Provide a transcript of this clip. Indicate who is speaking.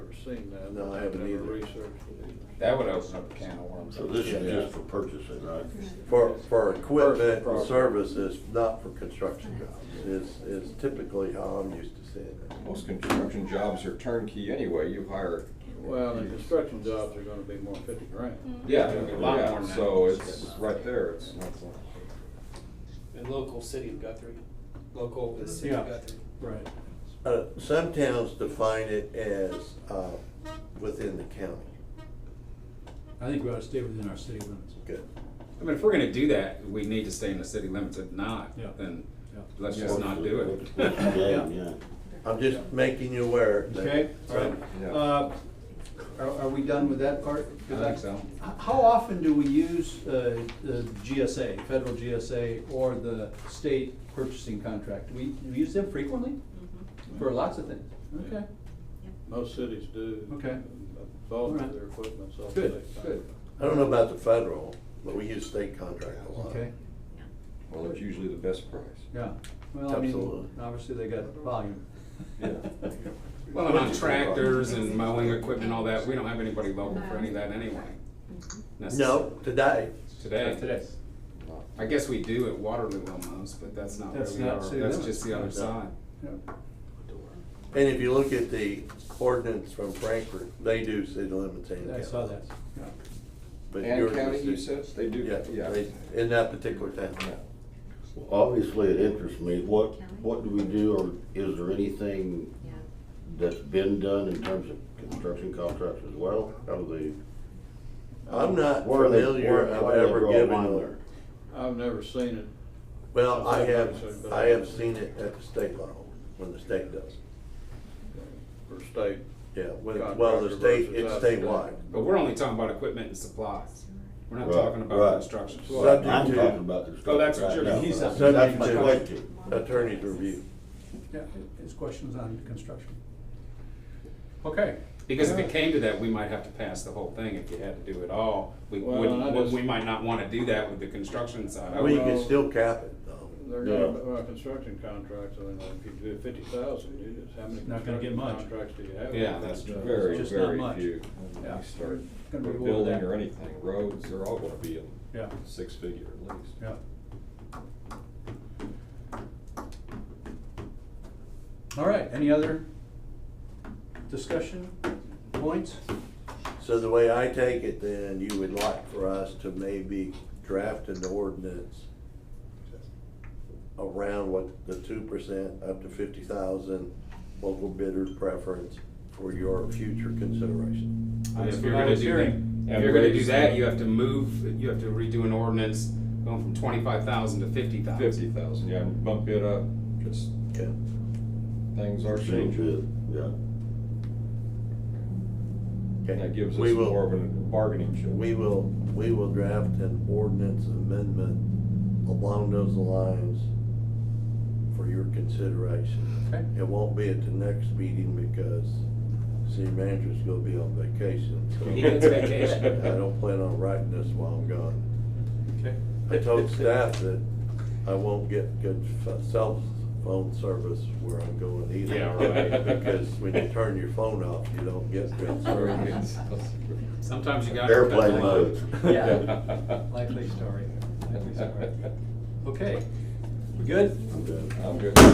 Speaker 1: seen that.
Speaker 2: No, I haven't
Speaker 1: never
Speaker 2: either.
Speaker 1: researched it either.
Speaker 3: That would open up a can of worms.
Speaker 4: So this is
Speaker 2: Yeah.
Speaker 4: just for purchasing, right?
Speaker 2: For, for equipment
Speaker 1: Purchase
Speaker 2: and
Speaker 1: property.
Speaker 2: services, not for construction jobs, is, is typically how I'm used to seeing it.
Speaker 5: Most construction jobs are turnkey anyway, you hire.
Speaker 1: Well, the construction jobs are gonna be more than fifty grand.
Speaker 5: Yeah,
Speaker 3: A lot more
Speaker 5: yeah,
Speaker 3: than
Speaker 5: so
Speaker 3: that.
Speaker 5: it's right there, it's.
Speaker 6: And local city of Guthrie, local is city of Guthrie.
Speaker 7: Right.
Speaker 2: Uh, some towns define it as, uh, within the county.
Speaker 7: I think we ought to stay within our city limits.
Speaker 2: Good.
Speaker 3: I mean, if we're gonna do that, we need to stay in the city limits. If not,
Speaker 7: Yeah.
Speaker 3: then
Speaker 7: Yeah.
Speaker 3: let's just not do it.
Speaker 4: What's the game, yeah.
Speaker 2: I'm just making you aware that.
Speaker 7: Okay, all right.
Speaker 5: Yeah.
Speaker 7: Uh, Are, are we done with that part? 'Cause
Speaker 3: I think so.
Speaker 7: h- How often do we use uh, the GSA, federal GSA, or the state purchasing contract? Do we, do we use them frequently? For lots of things? Okay,
Speaker 1: Most cities do.
Speaker 7: Okay.
Speaker 1: All
Speaker 7: All
Speaker 1: of
Speaker 7: right.
Speaker 1: their equipment's all.
Speaker 7: good,
Speaker 1: state
Speaker 7: good,
Speaker 2: I don't know about the federal, but we use state contract a lot.
Speaker 7: okay,
Speaker 5: Well, it's usually the best price.
Speaker 7: yeah. Well, I mean,
Speaker 2: Absolutely.
Speaker 7: obviously they got volume.
Speaker 5: Yeah.
Speaker 3: Well, and on tractors and mowing equipment, all that, we don't have anybody local for any of that anyway.
Speaker 1: Mm-hmm.
Speaker 2: No, today,
Speaker 3: Today.
Speaker 7: Today.
Speaker 3: I guess we do at Waterloo almost, but that's not where
Speaker 7: That's
Speaker 3: we
Speaker 7: not
Speaker 3: are.
Speaker 7: city
Speaker 3: That's
Speaker 7: limits.
Speaker 3: just the other
Speaker 2: No.
Speaker 3: side.
Speaker 7: Yeah.
Speaker 2: and if you look at the ordinance from Frankfurt, they do city limits and
Speaker 7: I
Speaker 2: county.
Speaker 7: saw that, yeah.
Speaker 2: But yours
Speaker 5: And
Speaker 2: is
Speaker 5: county,
Speaker 2: city.
Speaker 5: you said, they do,
Speaker 2: Yeah,
Speaker 5: yeah.
Speaker 2: they- in that particular town.
Speaker 4: Well, Obviously, it interests me, what, what do we do, or is there anything
Speaker 8: Yeah.
Speaker 4: that's been done in terms of construction contracts as well? How do
Speaker 2: I'm
Speaker 4: they?
Speaker 2: not
Speaker 4: where are they-
Speaker 2: familiar
Speaker 4: where-
Speaker 2: of
Speaker 4: why do they
Speaker 2: ever
Speaker 4: draw a
Speaker 2: giving
Speaker 4: line
Speaker 2: them.
Speaker 4: there?
Speaker 1: I've never seen it.
Speaker 2: Well, I have, I have seen it at the state level, when the state does. it.
Speaker 1: For state.
Speaker 2: Yeah, when, well, the state,
Speaker 1: Contractor
Speaker 2: it's
Speaker 1: versus us.
Speaker 2: statewide.
Speaker 3: But we're only talking about equipment and supplies. We're not
Speaker 4: Right,
Speaker 3: talking about
Speaker 4: right.
Speaker 3: construction.
Speaker 1: Well,
Speaker 4: I'm
Speaker 2: Subject
Speaker 4: talking
Speaker 2: to-
Speaker 4: about the
Speaker 3: Oh, that's
Speaker 4: construction
Speaker 3: what
Speaker 4: right
Speaker 3: you're-
Speaker 4: now.
Speaker 7: he's
Speaker 4: That's
Speaker 7: up-
Speaker 2: subject
Speaker 4: my
Speaker 2: to
Speaker 4: question.
Speaker 2: Attorney's review.
Speaker 7: Yeah, his question was on construction. Okay.
Speaker 3: Because if it came to that, we might have to pass the whole thing if you had to do it all. We
Speaker 1: Well, I
Speaker 3: wouldn't,
Speaker 1: just-
Speaker 3: we might not wanna do that with the construction side. I
Speaker 2: Well, you
Speaker 3: would-
Speaker 2: can still cap it, though.
Speaker 1: They're gonna,
Speaker 4: Yeah.
Speaker 1: well, construction contracts, I mean, like, if you do fifty thousand, you just, how many
Speaker 7: Not gonna get
Speaker 1: construction
Speaker 7: much.
Speaker 1: contracts do you have?
Speaker 3: Yeah, that's true.
Speaker 5: Very,
Speaker 7: uh, Just not
Speaker 5: very
Speaker 7: much.
Speaker 5: few. When
Speaker 7: Yeah.
Speaker 5: you start
Speaker 7: Gonna be below
Speaker 5: building
Speaker 7: that.
Speaker 5: or anything, roads, they're all gonna be in
Speaker 7: Yeah,
Speaker 5: six figure at least.
Speaker 7: yeah. All right, any other discussion points?
Speaker 2: So the way I take it, then, you would like for us to maybe draft an ordinance around what the two percent, up to fifty thousand, local bidder preference for your future consideration.
Speaker 3: And
Speaker 7: That's
Speaker 3: If you're
Speaker 7: what I
Speaker 3: gonna
Speaker 7: was
Speaker 3: do
Speaker 7: hearing.
Speaker 3: that, if you're gonna do that, you have to move, you have to redo an ordinance going from twenty-five thousand to fifty thousand.
Speaker 5: Fifty thousand, yeah, and bump it up, cause
Speaker 2: Yeah.
Speaker 5: things are
Speaker 4: Change
Speaker 5: changing.
Speaker 4: it, yeah.
Speaker 2: Okay.
Speaker 5: And that gives us
Speaker 2: We will-
Speaker 5: more of a bargaining chip.
Speaker 2: We will, we will draft an ordinance amendment along those lines for your consideration.
Speaker 7: Okay.
Speaker 2: It won't be at the next meeting because city manager's gonna be on vacation. so
Speaker 3: He gets vacation.
Speaker 2: I don't plan on writing this while I'm gone.
Speaker 7: Okay.
Speaker 2: I told staff that I won't get good f- cell phone service where I'm going either.
Speaker 3: Yeah, right.
Speaker 2: Because when you turn your phone off, you don't get good
Speaker 5: Very
Speaker 2: service.
Speaker 5: good.
Speaker 3: Sometimes you gotta.
Speaker 4: Airplane mode.
Speaker 7: Likely story, likely story. Okay, we good?
Speaker 4: I'm good.
Speaker 5: I'm good.